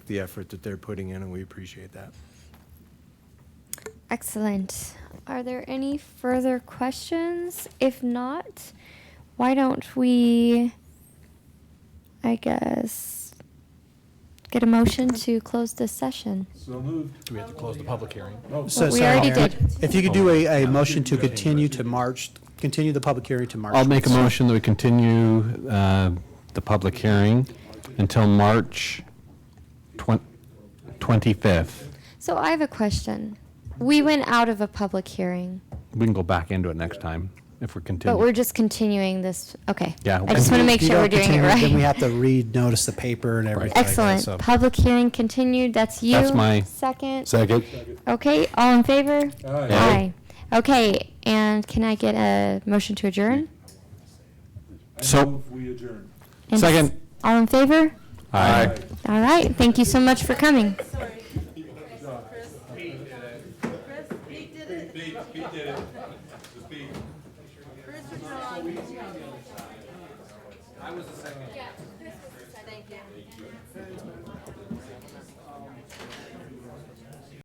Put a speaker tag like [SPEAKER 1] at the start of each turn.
[SPEAKER 1] the effort that they're putting in, and we appreciate that.
[SPEAKER 2] Excellent. Are there any further questions? If not, why don't we, I guess, get a motion to close this session?
[SPEAKER 3] Do we have to close the public hearing?
[SPEAKER 4] So
[SPEAKER 2] We
[SPEAKER 4] Oh, sorry,
[SPEAKER 2] already
[SPEAKER 4] Mayor,
[SPEAKER 2] did.
[SPEAKER 4] If you could do a, a motion to continue to March, continue the public hearing to March.
[SPEAKER 5] I'll make a
[SPEAKER 4] 1st.
[SPEAKER 5] motion that we continue uh, the public hearing until March twen- 25th.
[SPEAKER 2] So I have a question. We went out of a public hearing,
[SPEAKER 5] We can go back into it next time if
[SPEAKER 2] but we're
[SPEAKER 5] we're continuing.
[SPEAKER 2] just continuing this, okay.
[SPEAKER 5] Yeah,
[SPEAKER 2] I just want to
[SPEAKER 5] and
[SPEAKER 2] make
[SPEAKER 4] If you
[SPEAKER 2] sure
[SPEAKER 4] don't
[SPEAKER 2] we're doing it
[SPEAKER 4] continue,
[SPEAKER 2] right.
[SPEAKER 4] Then we have to re-notice the paper and everything. like that, so-
[SPEAKER 2] Excellent. Public hearing continued. That's you.
[SPEAKER 5] That's my-
[SPEAKER 2] Second.
[SPEAKER 5] Second.
[SPEAKER 2] Okay, all in favor?
[SPEAKER 5] Aye.
[SPEAKER 2] Aye. Okay, and can I get a motion to adjourn?
[SPEAKER 5] So,
[SPEAKER 1] We adjourn.
[SPEAKER 2] And
[SPEAKER 5] Second.
[SPEAKER 2] All in favor?
[SPEAKER 5] aye.
[SPEAKER 2] All right, thank you so much for coming.
[SPEAKER 6] Sorry. Chris, Chris, Pete did it. Pete, did it. Chris or John? I was the second. Thank you.